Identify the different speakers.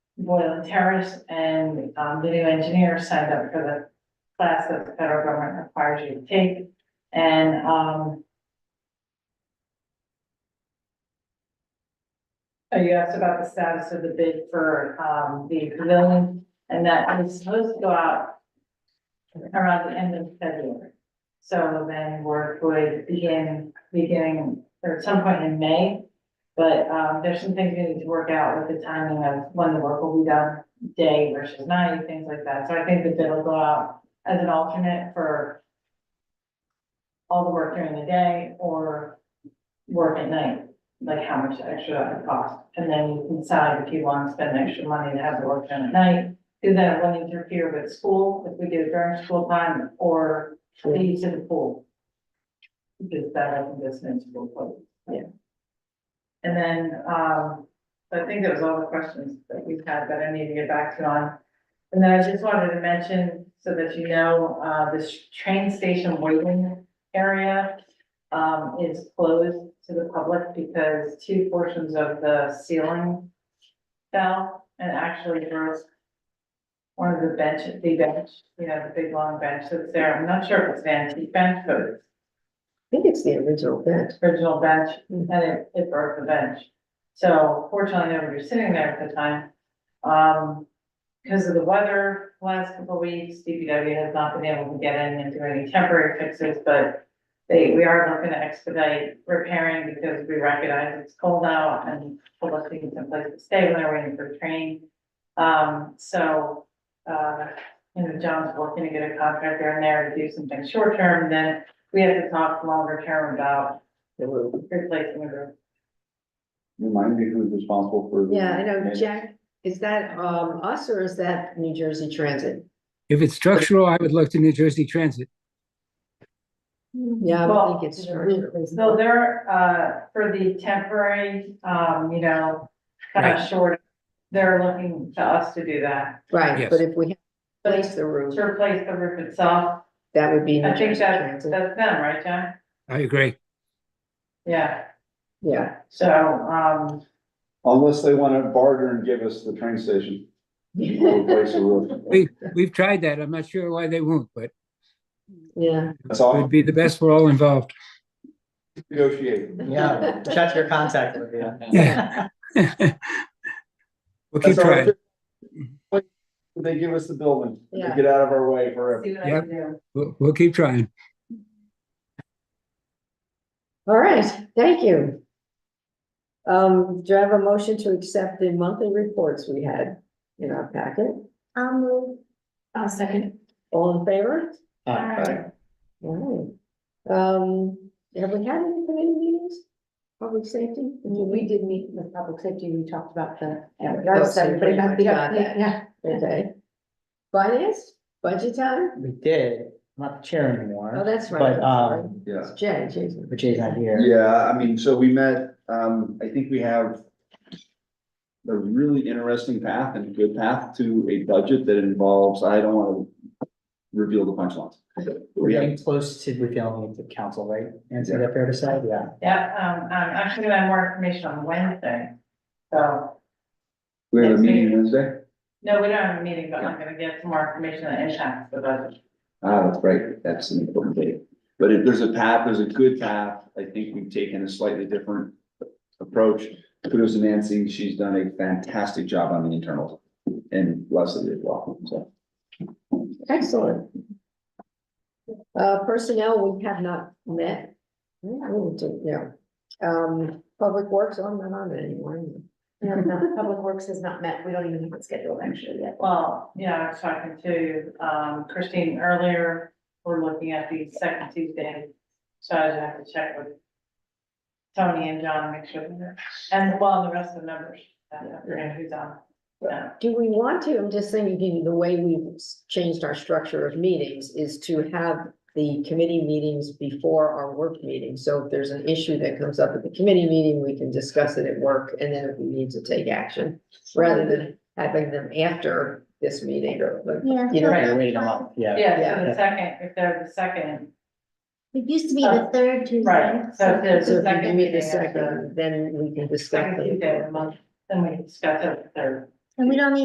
Speaker 1: Boylan Terrace and, um, the new engineer signed up for the class that the federal government requires you to take. And, um, oh, you asked about the status of the bid for, um, the pavilion, and that is supposed to go out around the end of February. So then work would begin, beginning, or at some point in May. But, um, there's some things we need to work out with the timing of when the work will be done, day versus night, things like that. So I think the bid will go out as an alternate for all the work during the day or work at night, like how much extra that would cost. And then you can decide if you want to spend extra money to have the work done at night, because then it won't interfere with school, if we do it during school time or the use of the pool. Because that doesn't go into school, but. And then, um, so I think that was all the questions that we've had that I need to get back to on. And then I just wanted to mention, so that you know, uh, this train station waiting area um, is closed to the public because two portions of the ceiling fell and actually there was one of the bench, the bench, you know, the big long bench that's there. I'm not sure if it's an antique bench, but it's
Speaker 2: think it's the original bed.
Speaker 1: original bench, and it, it broke the bench. So fortunately, nobody was sitting there at the time. Um, because of the weather, last couple of weeks, DPW has not been able to get in and do any temporary fixes, but they, we are looking to expedite repairing because we recognize it's cold out and people are looking someplace to stay when they're waiting for the train. Um, so, uh, you know, John's working to get a contractor in there to do something short term, then we have to talk longer term about
Speaker 2: the room.
Speaker 1: replacing the roof.
Speaker 3: Remind me who's responsible for. the-
Speaker 2: Yeah, I know, Jack, is that um us or is that New Jersey Transit?
Speaker 4: If it's structural, I would look to New Jersey Transit.
Speaker 2: Yeah, I
Speaker 1: Well,
Speaker 2: would think it's structural.
Speaker 1: So there, uh, for the temporary, um, you know, kind of
Speaker 4: Right.
Speaker 1: short, they're looking to us to do that.
Speaker 2: Right,
Speaker 4: Yes.
Speaker 2: but if we
Speaker 1: But
Speaker 2: place the roof,
Speaker 1: to replace the roof itself,
Speaker 2: that would be
Speaker 1: I
Speaker 2: New
Speaker 1: think
Speaker 2: Jersey
Speaker 1: that's,
Speaker 2: Transit.
Speaker 1: that's them, right, John?
Speaker 4: I agree.
Speaker 1: Yeah,
Speaker 2: Yeah,
Speaker 1: so, um,
Speaker 3: Unless they wanna barter and give us the train station, we'll replace the roof.
Speaker 4: We, we've tried that. I'm not sure why they won't, but
Speaker 2: yeah.
Speaker 3: That's
Speaker 4: it
Speaker 3: all,
Speaker 4: would be the best for all involved.
Speaker 3: negotiate.
Speaker 5: Yeah, check your contact with you.
Speaker 4: Yeah. We'll keep
Speaker 3: That's all.
Speaker 4: trying.
Speaker 3: They give us the building, they
Speaker 2: Yeah.
Speaker 3: get out of our way forever.
Speaker 1: see what I
Speaker 4: Yep.
Speaker 1: can do.
Speaker 4: We'll, we'll keep trying.
Speaker 2: All right, thank you. Um, do I have a motion to accept the monthly reports we had in our packet?
Speaker 6: I'll move. I'll second.
Speaker 2: All in favor?
Speaker 1: Alright.
Speaker 2: All right. Um, have we had any committee meetings? Public safety?
Speaker 6: We did meet with public safety, we talked about the,
Speaker 2: Yeah,
Speaker 6: I was
Speaker 2: that's
Speaker 6: everybody about the,
Speaker 2: pretty much
Speaker 6: yeah, yeah.
Speaker 2: Okay. Finance, budget time?
Speaker 5: We did, I'm not the chair anymore.
Speaker 2: Oh, that's right.
Speaker 5: But,
Speaker 2: I'm sorry.
Speaker 5: um,
Speaker 3: Yeah.
Speaker 2: It's Jay, Jason.
Speaker 5: but Jay's not here.
Speaker 3: Yeah, I mean, so we met, um, I think we have. A really interesting path and a good path to a budget that involves, I don't wanna reveal the punchlines.
Speaker 5: We're
Speaker 3: We have-
Speaker 5: getting close to revealing it to council, right? And is that fair to say? Yeah.
Speaker 1: Yeah, um, I'm actually gonna have more information on Wednesday. So,
Speaker 3: we have a meeting Wednesday?
Speaker 1: no, we don't have a meeting, but I'm gonna get some more information that impacts the budget.
Speaker 3: Ah, that's right, that's an important date. But if there's a path, there's a good path, I think we've taken a slightly different approach. Kudos to Nancy, she's done a fantastic job on the internals and Leslie as well, so.
Speaker 2: Excellent. Uh, personnel, we have not met. Yeah, we do, yeah. Um, public works, I'm not on it anymore.
Speaker 6: No, no, Public Works has not met, we don't even have it scheduled actually yet.
Speaker 1: Well, yeah, I was talking to um Christine earlier, we're looking at the second Tuesday, so I just have to check with. Tony and John, make sure, they're- and well, the rest of the members, uh, and who's on, yeah,
Speaker 2: Do we want to, I'm just thinking, the way we've s- changed our structure of meetings is to have the committee meetings before our work meeting. So if there's an issue that comes up at the committee meeting, we can discuss it at work and then if we need to take action. Rather than having them after this meeting or, like,
Speaker 6: Yeah.
Speaker 2: you know,
Speaker 1: Right.
Speaker 5: We're waiting them up, yeah.
Speaker 1: yeah, so the second, if they're the second,
Speaker 6: It used to be the third Tuesday.
Speaker 1: right, so if there's
Speaker 2: Uh, So
Speaker 1: a
Speaker 2: if you
Speaker 1: second
Speaker 2: give me
Speaker 1: meeting,
Speaker 2: the
Speaker 1: it's the
Speaker 2: second, then we can discuss.
Speaker 1: second Tuesday of the
Speaker 2: it.
Speaker 1: month, then we discuss it, third.
Speaker 6: And we don't